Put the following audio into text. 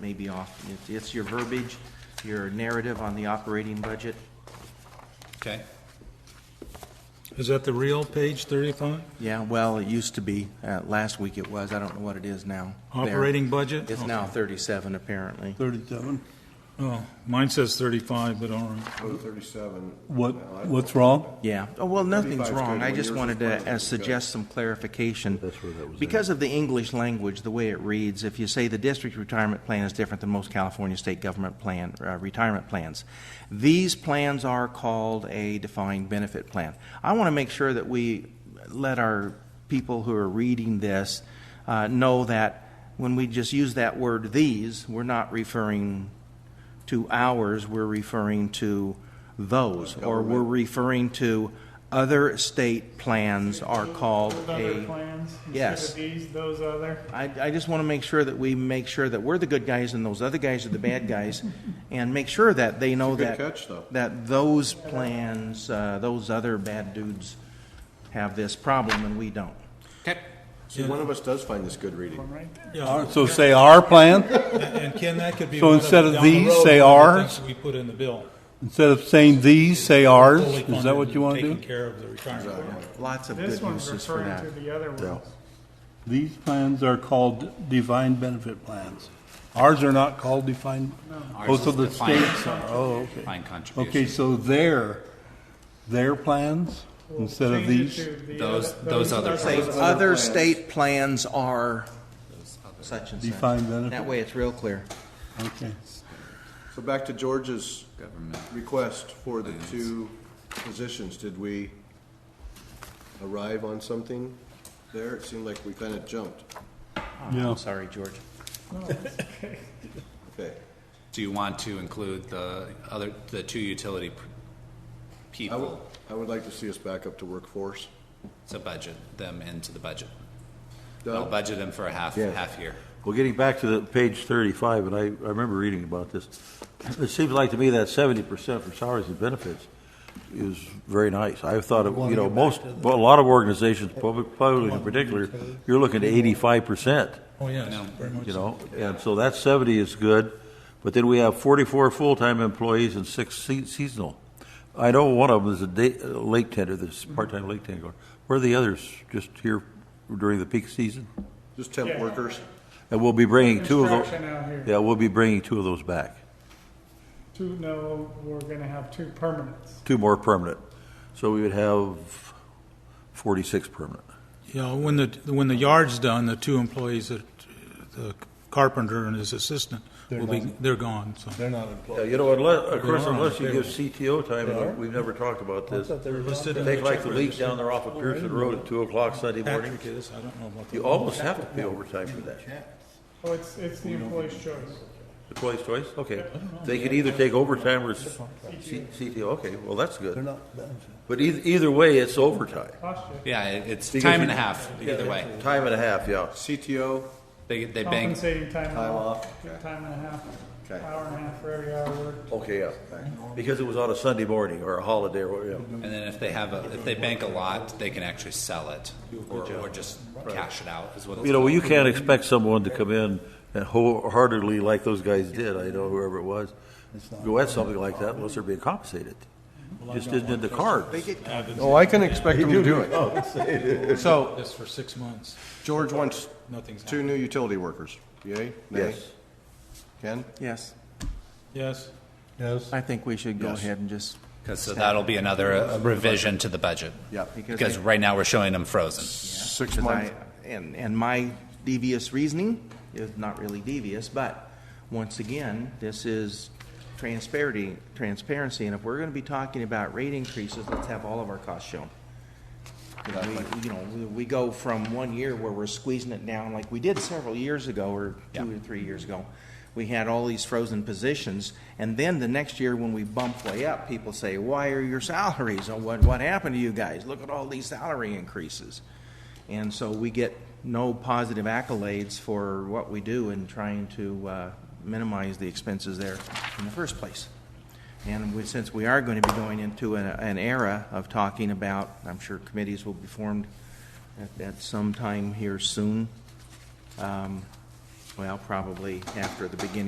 may be off. It- It's your verbiage, your narrative on the operating budget. Okay. Is that the real page 35? Yeah, well, it used to be, uh, last week it was, I don't know what it is now. There. Operating budget? It's now thirty-seven apparently. 37. Oh, mine says 35, but all right. Go to 37. What, what's wrong? Yeah, oh, well, nothing's 35 's wrong, good. I When just yours wanted was to planted, uh, it was good. suggest some clarification. That's where that was at. Because of the English language, the way it reads, if you say the district retirement plan is different than most California state government plan, uh, retirement plans, these plans are called a defined benefit plan. I want to make sure that we let our people who are reading this uh, know that when we just use that word "these," we're not referring to ours, we're referring to those, or we're referring to other state plans are called Other a. plans? instead of yes. These, those other? I, I just want to make sure that we make sure that we're the good guys and those other guys are the bad guys, and make sure that they know good that. catch, though. That those plans, uh, those other bad dudes have this problem and we don't. Okay. See, one of us does find this good reading. One right there. Our- So say our plan, And Ken, that could be. So one instead of down the these, road, one say of the ours? things that We put in the bill. instead of saying these, say ours, Fully is that what funded you and want to Taking do? care of the retirement. Lots of This good one's uses for referring that. to the other ones. These plans are called defined benefit plans. Ours are not called defined, most is of the defined. states are, oh, okay. Defined contribution. Okay, so their, their plans, We'll instead of change it these, to the Those- other- those other Say, plans. other state plans are such and such. defined That benefit, way it's real clear. okay. So back to George's Government. request for the two positions, did we arrive on something there? It seemed like we kind of jumped. Yeah. I'm sorry, George. Okay. Do you want to include the other, the two utility p- I would, people, I would like to see us back up to workforce. to budget them into the budget? I'll Doug? budget them for a half, Yeah. half year. Well, getting back to the page thirty-five, and I, I remember reading about this, it seems like to me that seventy percent for salaries and benefits is very nice. I thought, of- you know, most, well, a lot of organizations, public, public in particular, you're looking at eighty-five percent, Oh, yes, very much you so. know? And so that seventy is good, but then we have forty-four full-time employees and six se- seasonal. I know one of them is a day, a lake tender, this part-time lake tender. Where are the others, just here during the peak season? Just temp Yeah. workers? And we'll be bringing two of those. Construction out here. Yeah, we'll be bringing two of those back, Two, no, we're gonna have two permanents. two more permanent. So we would have forty-six permanent. Yeah, when the, when the yard's done, the two employees, that- the carpenter and his assistant, will be, they're gone, so. They're not employed. Yeah, you know, unless, of course, are on unless the you give payroll. CTO time, They are? and we've never talked about this. thought they were listed in Take the like check the leak register. down there off of Pearson Road at two o'clock Sunday morning. Patrick is, I don't know about the. You almost have to pay overtime for that. Oh, it's, it's the employee's choice. Twice, twice, okay. They could either take overtime or s- C- CTO, okay, well, that's They're good. not, But either, either way, it's overtime. Cost you. Yeah, it- it's Because time you- and a half, either way. Time and a half, yeah. CTO, They, they bank, Compensating time and Time off, off, okay. time and a half, Okay. hour and a half for every hour worked. Okay, yeah, because it was on a Sunday morning or a holiday or, yeah. and then if they have, a if they bank a lot, they can actually sell it, or, or just cash it out, is what it's You know, well, called. you can't expect someone to come in and wholeheartedly, like those guys did, I know whoever it was, go at something like that unless they're being compensated. Just isn't in the cards. Oh, I can expect them to do it. So This for six months, George wants nothing's two happened. new utility workers. Yay? Nay? Yes. Ken? Yes, Yes, yes. I think we should go Yes. ahead and just, 'Cause so that'll be another uh, revision to the budget. Yeah. because Because right now, we're showing them frozen. Six Because I, months. and, and my devious reasoning is not really devious, but once again, this is transparency, transparency, and if we're gonna be talking about rate increases, let's have all of our costs shown. You know, we- You know, we, we go from one year where we're squeezing it down like we did several years ago, or two Yeah. or three years ago. We had all these frozen positions, and then the next year when we bump way up, people say, why are your salaries, or what, what happened to you guys? Look at all these salary increases. And so we get no positive accolades for what we do in trying to uh, minimize the expenses there in the first place. And we, since we are going to be going into an, an era of talking about, I'm sure committees will be formed at, at some time here soon. Um, well, probably after the beginning.